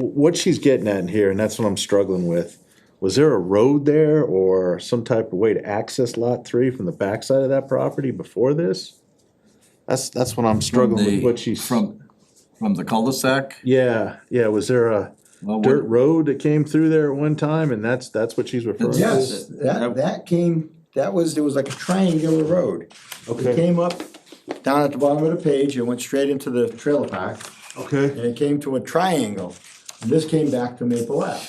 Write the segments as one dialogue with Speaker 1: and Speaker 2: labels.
Speaker 1: what she's getting at in here, and that's what I'm struggling with, was there a road there or some type of way to access lot three from the backside of that property before this? That's, that's what I'm struggling with,
Speaker 2: The-
Speaker 1: what she's.
Speaker 2: From, from the cul-de-sac?
Speaker 1: Yeah, yeah, was there a
Speaker 2: Well,
Speaker 1: dirt
Speaker 2: what-
Speaker 1: road that came through there at one time, and that's, that's what she's referring to?
Speaker 2: Yes.
Speaker 3: Yes, that, that came, that was, there was like a triangular road. It
Speaker 1: Okay,
Speaker 3: came up down at the bottom of the page and went straight into the trailer park,
Speaker 1: okay,
Speaker 3: and it came to a triangle. And this came back to Maple Ave.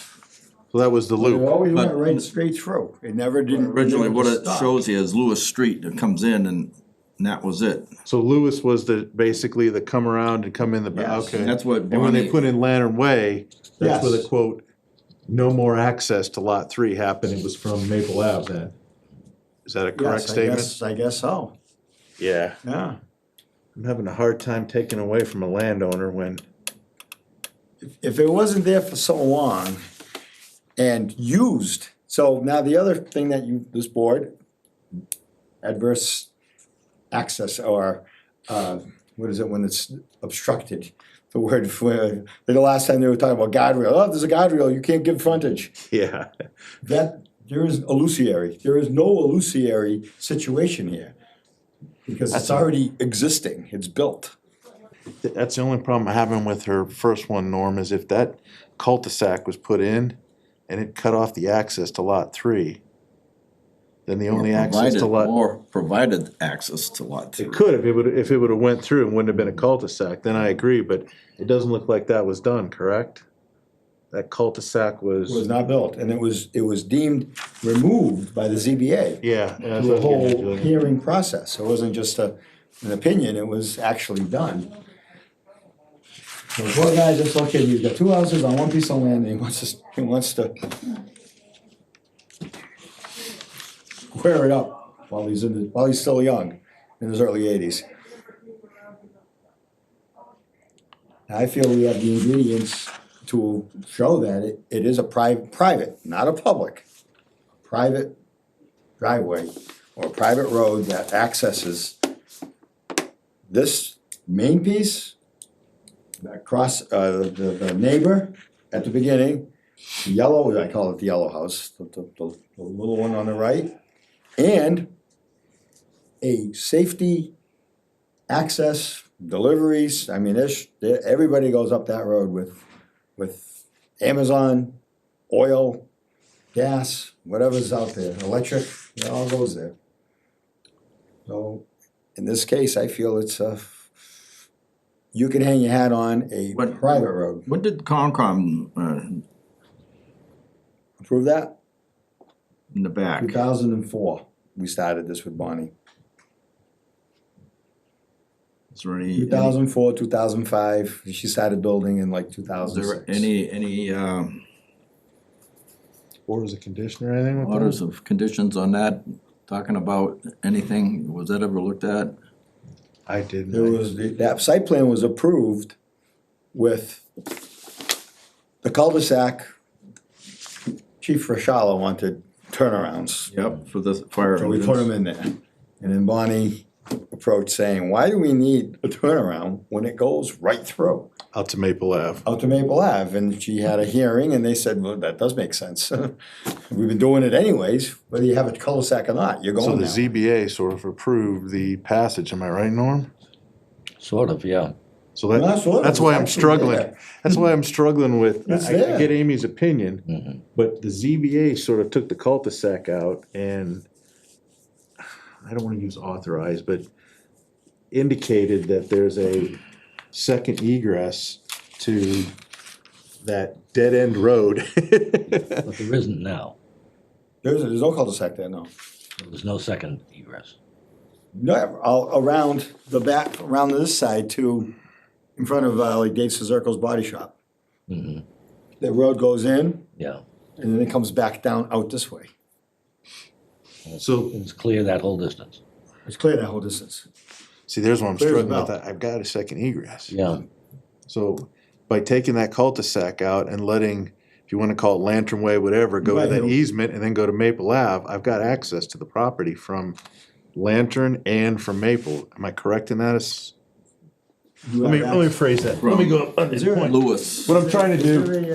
Speaker 1: so that was the
Speaker 3: It
Speaker 1: loop,
Speaker 3: always went
Speaker 2: But-
Speaker 3: right straight through. It never didn't.
Speaker 2: Originally,
Speaker 3: never
Speaker 2: what it
Speaker 3: stopped.
Speaker 2: shows here is Lewis Street that comes in and, and that was it.
Speaker 1: so Lewis was the, basically the come around and come in the, ba-
Speaker 3: Yes.
Speaker 1: okay.
Speaker 2: That's what
Speaker 1: And when they
Speaker 2: Bonnie-
Speaker 1: put in Lantern Way, that's where the
Speaker 3: Yes.
Speaker 1: quote, no more access to lot three happened, it was from Maple Ave then. Is that a correct
Speaker 3: Yes, I
Speaker 1: statement?
Speaker 3: guess, I guess so,
Speaker 1: Yeah.
Speaker 3: yeah.
Speaker 1: I'm having a hard time taking away from a landowner when,
Speaker 3: if it wasn't there for so long and used, so now the other thing that you, this board, adverse access or, uh, what is it when it's obstructed? The word for, the last time they were talking about guardrail, oh, there's a guardrail, you can't give frontage.
Speaker 1: yeah,
Speaker 3: That, there is illusory, there is no illusory situation here. Because it's already existing, it's built.
Speaker 1: Th- that's the only problem I'm having with her first one, Norm, is if that cul-de-sac was put in and it cut off the access to lot three, then the only access to lot.
Speaker 2: provided- Or provided access to lot three.
Speaker 1: It could, if it would, if it would have went through and wouldn't have been a cul-de-sac, then I agree, but it doesn't look like that was done, correct? That cul-de-sac
Speaker 3: was
Speaker 1: was,
Speaker 3: not built, and it was, it was deemed removed by the ZBA.
Speaker 1: yeah. yeah, that's
Speaker 3: The
Speaker 1: what I'm
Speaker 3: whole
Speaker 1: getting at, Julian.
Speaker 3: hearing process, it wasn't just a, an opinion, it was actually done. So the poor guy just looked at, he's got two houses on one piece of land, and he wants to, he wants to square it up while he's in, the- while he's still young, in his early eighties. I feel we have the ingredients to show that it, it is a private, private, not a public, private driveway or private road that accesses this main piece, that cross, uh, the, the neighbor at the beginning, the yellow, I call it the yellow house, the, the, the the little one on the right, and a safety access, deliveries, I mean, there's, there- everybody goes up that road with, with Amazon, oil, gas, whatever's out there, electric, it all goes there. So, in this case, I feel it's a, you can hang your hat on a
Speaker 2: But-
Speaker 3: private road,
Speaker 2: What did Concom, uh,
Speaker 3: approve that?
Speaker 2: in the back?
Speaker 3: Two thousand and four, we started this with Bonnie,
Speaker 2: Is there any?
Speaker 3: two thousand four, two thousand five, she started building in like two
Speaker 2: Is
Speaker 3: thousand
Speaker 2: there
Speaker 3: six.
Speaker 2: any, any, um,
Speaker 1: Or was it conditioner or anything like
Speaker 2: orders
Speaker 1: that?
Speaker 2: of conditions on that? Talking about anything, was that ever looked at?
Speaker 1: I didn't.
Speaker 3: There was, that site plan was approved with the cul-de-sac. Chief Rashala wanted turnarounds,
Speaker 2: Yep, for the fire.
Speaker 3: so we put them
Speaker 2: engines.
Speaker 3: in there. And then Bonnie approached saying, why do we need a turnaround when it goes right through?
Speaker 1: Out to Maple Ave.
Speaker 3: out to Maple Ave, and she had a hearing, and they said, well, that does make sense. We've been doing it anyways, whether you have a cul-de-sac or not, you're
Speaker 1: So
Speaker 3: going
Speaker 1: the
Speaker 3: now.
Speaker 1: ZBA sort of approved the passage, am I right, Norm?
Speaker 4: Sort of, yeah.
Speaker 1: So
Speaker 3: No,
Speaker 1: that,
Speaker 3: that's what-
Speaker 1: that's why I'm
Speaker 3: it's actually
Speaker 1: struggling.
Speaker 3: there.
Speaker 1: That's why I'm struggling with,
Speaker 3: It's
Speaker 1: I I
Speaker 3: there.
Speaker 1: get Amy's opinion, but the ZBA sort of took the cul-de-sac out and I don't wanna use authorized, but indicated that there's a second egress to that dead-end road.
Speaker 4: But there isn't now.
Speaker 3: There's, there's no cul-de-sac there, no.
Speaker 4: There was no second egress.
Speaker 3: No, all around the back, around this side to, in front of uh, like Dave Cizerco's Body Shop.
Speaker 4: Mhm.
Speaker 3: The road goes in,
Speaker 4: Yeah.
Speaker 3: and then it comes back down out this way.
Speaker 1: So
Speaker 4: It was clear that whole distance.
Speaker 3: It's clear that whole distance.
Speaker 1: See, there's where I'm
Speaker 3: Clear as a
Speaker 1: struggling with
Speaker 3: bell.
Speaker 1: that. I've got a second egress.
Speaker 4: Yeah.
Speaker 1: So by taking that cul-de-sac out and letting, if you wanna call it Lantern Way, whatever, go to
Speaker 3: Right,
Speaker 1: that
Speaker 3: you-
Speaker 1: easement and then go to Maple Ave, I've got access to the property from Lantern and from Maple. Am I correct in that? It's-
Speaker 3: You
Speaker 1: Let me,
Speaker 3: have
Speaker 1: let me
Speaker 3: access-
Speaker 1: phrase that. Let me go up on this
Speaker 3: there a-
Speaker 1: point.
Speaker 2: Lewis.
Speaker 1: What I'm trying to do.
Speaker 3: Is there a,